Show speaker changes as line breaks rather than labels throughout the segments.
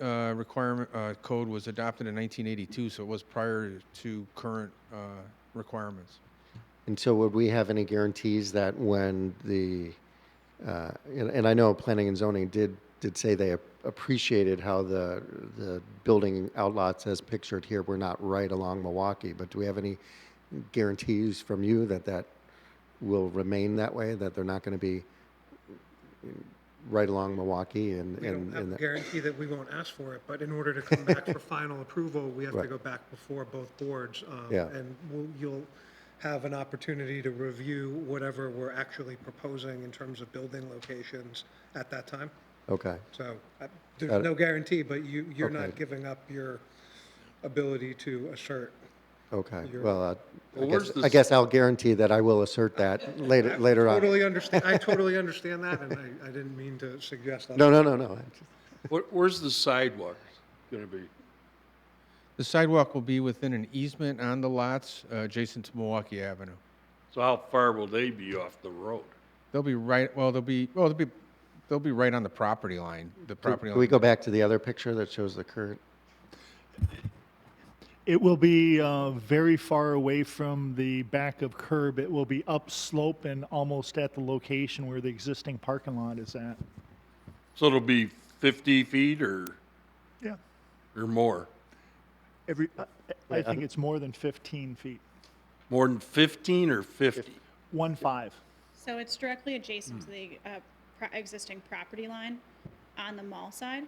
uh, requirement, uh, code was adopted in 1982, so it was prior to current uh, requirements.
And so would we have any guarantees that when the, uh, and and I know planning and zoning did, did say they appreciated how the, the building outlots as pictured here were not right along Milwaukee, but do we have any guarantees from you that that will remain that way, that they're not going to be right along Milwaukee and?
We
and
don't have
and
a
that-
guarantee that we won't ask for it, but in order to come back for final approval, we have to
Right.
go back before both boards. um,
Yeah.
And we'll- you'll have an opportunity to review whatever we're actually proposing in terms of building locations at that time.
Okay,
So I-
Got
there's
it.
no guarantee, but you, you're
Okay.
not giving up your ability to assert.
okay.
You're-
Well, uh, I
Well, where's
guess,
the
I
s-
guess I'll guarantee that I will assert that later, later on.
Totally understand, I totally understand that, and I, I didn't mean to suggest that.
No, no, no, no.
Where, where's the sidewalk gonna be?
The sidewalk will be within an easement on the lots uh, adjacent to Milwaukee Avenue.
So how far will they be off the road?
They'll be right, well, they'll be, well, they'll be, they'll be right on the property line, the property
Can we
line.
go back to the other picture that shows the current?
It will be uh, very far away from the back of curb. It will be upslope and almost at the location where the existing parking lot is at.
So it'll be fifty feet or,
Yeah.
or more?
Every, I- I think it's more than 15 feet.
More than fifteen or fifty?
One five.
So it's directly adjacent to the uh, pro- existing property line on the mall side.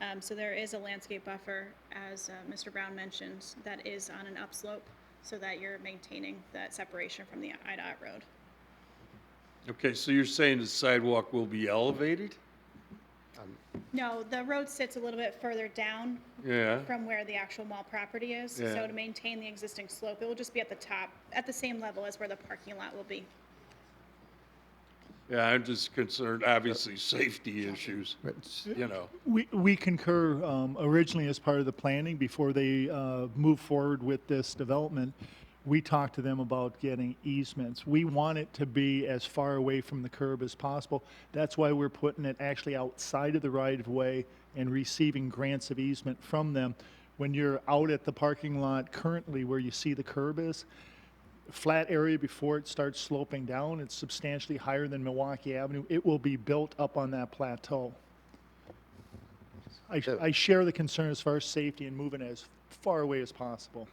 Um, So there is a landscape buffer, as uh, Mr. Brown mentioned, that is on an upslope so that you're maintaining that separation from the IDOT road.
Okay, so you're saying the sidewalk will be elevated?
No, the road sits a little bit further down
Yeah,
from where the actual mall property is.
Yeah.
So to maintain the existing slope, it will just be at the top, at the same level as where the parking lot will be.
yeah, I'm just concerned, obviously, safety issues, you know.
We, we concur um, originally as part of the planning before they uh, moved forward with this development. We talked to them about getting easements. We want it to be as far away from the curb as possible. That's why we're putting it actually outside of the right of way and receiving grants of easement from them. When you're out at the parking lot currently where you see the curb is, flat area before it starts sloping down, it's substantially higher than Milwaukee Avenue. It will be built up on that plateau. I, I share the concern as far as safety and moving as far away as possible.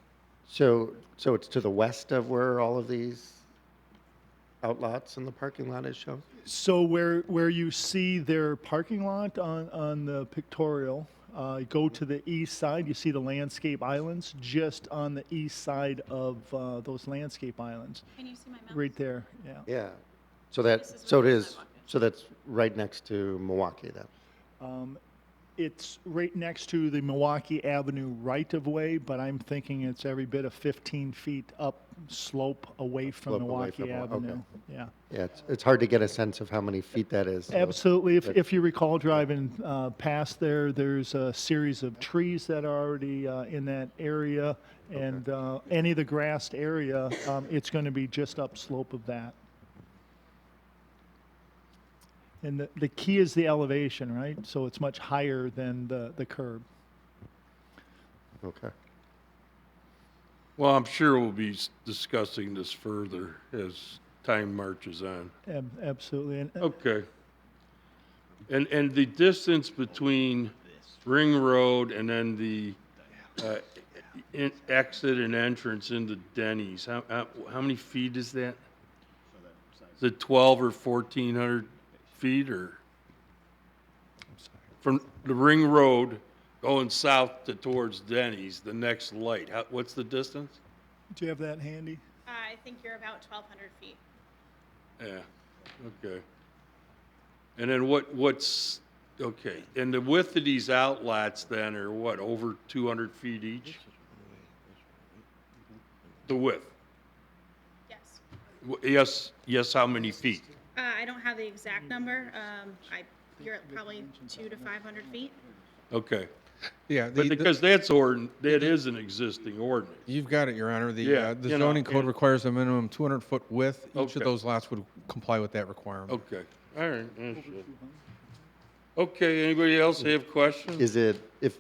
So, so it's to the west of where all of these outlots and the parking lot is shown?
So where, where you see their parking lot on, on the pictorial, uh, go to the east side, you see the landscape islands just on the east side of, uh, those landscape islands,
Can you see my mouse?
right there, yeah.
Yeah. So that,
This is
so it
where the
is,
sidewalk
so that's right next to Milwaukee then?
It's right next to the Milwaukee Avenue right-of-way, but I'm thinking it's every bit of 15 feet up slope away from
Slope away from
Milwaukee
Mil- okay.
Avenue. Yeah.
Yeah, it's, it's hard to get a sense of how many feet that is. so-
Absolutely. If,
but-
if you recall driving uh, past there, there's a series of trees that are already uh, in that area. And uh, any of the grassed area, um, it's going to be just upslope of that. And the, the key is the elevation, right? So it's much higher than the, the curb.
Okay.
Well, I'm sure we'll be s- discussing this further as time marches on.
Ab- Absolutely. And, uh,
Okay. And, and the distance between Ring Road and then the uh, in- exit and entrance into Denny's, how, how, how many feet is that? Is it 12 or 1,400 feet or? From the Ring Road going south to towards Denny's, the next light, how, what's the distance?
do you have that handy?
Uh, I think you're about 1,200 feet.
Yeah, okay. And then what, what's, okay, and the width of these outlets then are what, over two hundred feet each? The width,
Yes.
W- yes, yes, how many feet?
Uh, I don't have the exact number. Um, I, you're at probably two to five hundred feet.
Okay,
Yeah,
but
the- the-
because that's ordin, that is an existing ordinance.
you've got it, Your Honor. The,
Yeah,
uh, the
you know,
zoning code
and-
requires a minimum 200-foot width. Each
Okay.
of those lots would comply with that requirement.
Okay, all right. that's it. Okay, anybody else have questions?
Is it, if,